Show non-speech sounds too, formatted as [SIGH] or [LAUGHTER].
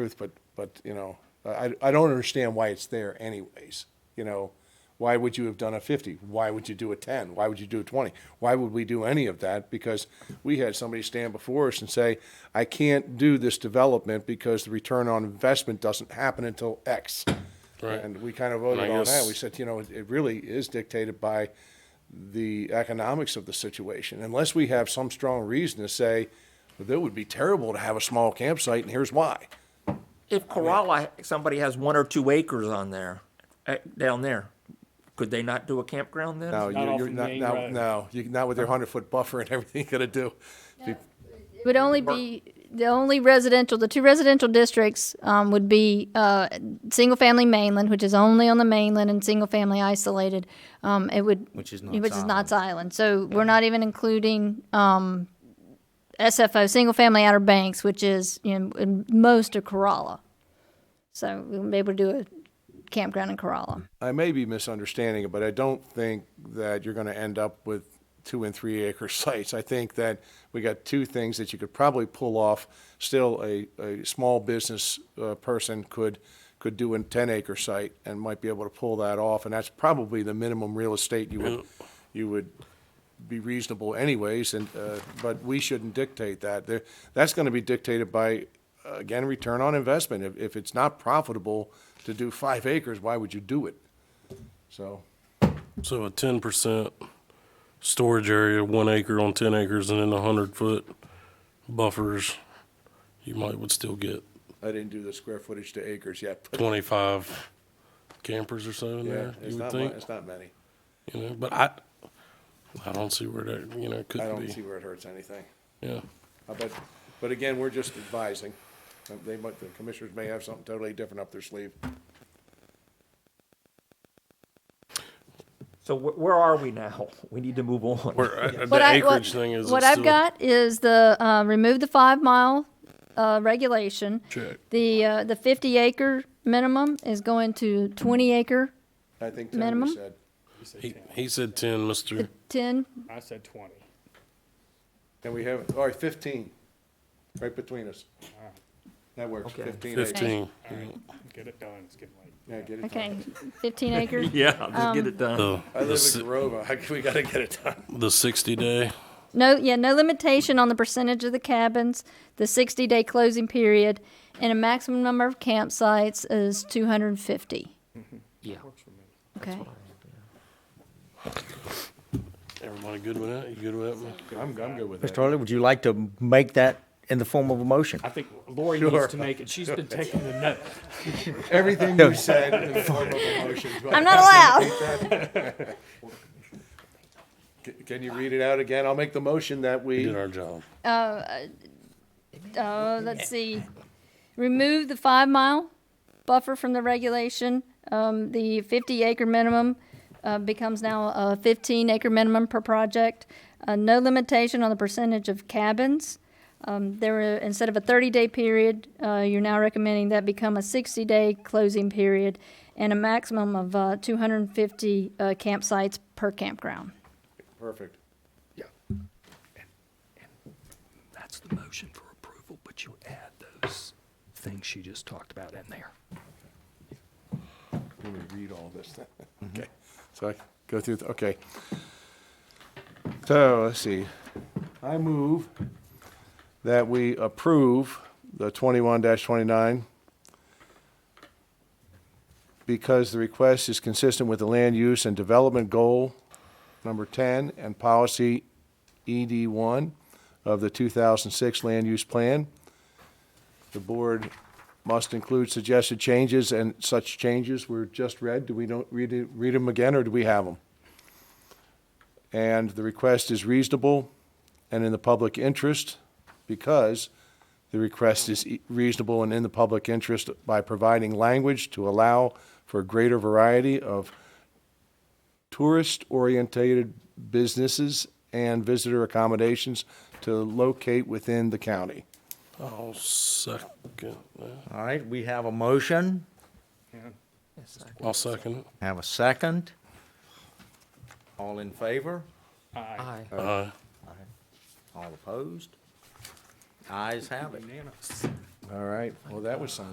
truth, but, but, you know, I, I don't understand why it's there anyways. You know, why would you have done a fifty? Why would you do a ten? Why would you do a twenty? Why would we do any of that? Because we had somebody stand before us and say, I can't do this development because the return on investment doesn't happen until X. Right. And we kind of voted And I on that. guess- We said, you know, it it really is dictated by the economics of the situation. Unless we have some strong reason to say, that would be terrible to have a small campsite and here's why. If Corolla, somebody has one or two acres on there, eh, down there, could they not do a campground then? No, not you're, off you're the not, main no, road. no, you, not with their hundred foot buffer and [LAUGHS] everything you're gonna do. Be- It would only be, the only residential, the two residential districts um, would be uh, single-family mainland, which is only on the mainland, and single-family isolated. Um, It would. Which is Which is Knott's Knott's Island. So we're not even including um, SFO, single-family Outer Banks, which is, you know, in most of Corolla. So we wouldn't be able to do a campground in Corolla. I may be misunderstanding it, but I don't think that you're gonna end up with two and three acre [LAUGHS] sites. I think that we got two things that you could probably pull off. Still, a, a small business, uh, person could, could do a ten acre site and might be able to pull that off. And that's probably the minimum real estate you would, you would be reasonable anyways, and, uh, but we shouldn't dictate that. There, that's gonna be dictated by, uh, again, return on investment. If, if it's not profitable to do five acres, why would you do it? So, So a ten percent storage area, one acre on ten acres, and then a hundred foot buffers, you might would still get I didn't do the square footage to acres yet, but twenty-five campers or so in yeah, there, it's you would not, mu- think, it's not many. you know, but I, I don't see where that, you know, I could don't see be, where it hurts anything. yeah. Uh, But, but again, we're just advising. Uh, They might, the commissioners may have something totally different up their sleeve. So wh- where are we now? [LAUGHS] We need to move on. Where, uh, What the I- what- acreage thing is. What it's I've still- got is the, uh, remove the five mile, uh, regulation. Check. The, uh, the fifty acre minimum is going to twenty acre, I think Tim Minimum? said, He, he said ten, Mr. ten, I said twenty. and we have, all right, fifteen, right between us. That works, Okay. fifteen acres. Fifteen. All right, get it done. It's getting late. Yeah, get it done. okay, [LAUGHS] fifteen acre. [LAUGHS] Yeah, just get it done. The, I the, live in si- Grove. I- [LAUGHS] We gotta get it done. the sixty day, No, yeah, no limitation on the percentage of the cabins, the sixty day closing period, and a maximum number of campsites is two hundred and fifty. Yeah. Okay, everybody good with that? You good with that? I'm, I'm good with Mr. Hurley, would you like to make that in the form of a motion? I think Lori needs to make it. She's [LAUGHS] been taking the notes. Everything you said in the form of a motion. I'm not [LAUGHS] allowed. Can- Can you read it out again? I'll make the motion that We we, Did our job. Uh, let's see, remove the five mile buffer from the regulation. Um, the fifty acre minimum, uh, becomes now a fifteen acre minimum per project. Uh, no limitation on the percentage of cabins. Um, there were, instead of a thirty-day period, uh, you're now recommending that become a sixty-day closing period and a maximum of, uh, two hundred and fifty, uh, campsites per campground. perfect. That's the motion for approval, but you add those things she just talked about in there. Let me read all this. [LAUGHS] then. Okay, so I go through, th- okay. So, let's see. I move that we approve the twenty-one twenty-nine because the request is consistent with the land use and development goal number ten and policy ED one of the two thousand six land use plan. The board must include suggested changes, and such changes were just read. Do we don't read, it- read them again, or do we have them? And the request is reasonable and in the public interest because the request is e- reasonable and in the public interest by providing language to allow for greater variety of tourist-oriented businesses and visitor accommodations to locate within the county. I'll second, that. All right, we have a motion, I'll second it. have a second. All in favor? Aye. Aye. All opposed? Ayes have it. All right, well, that was some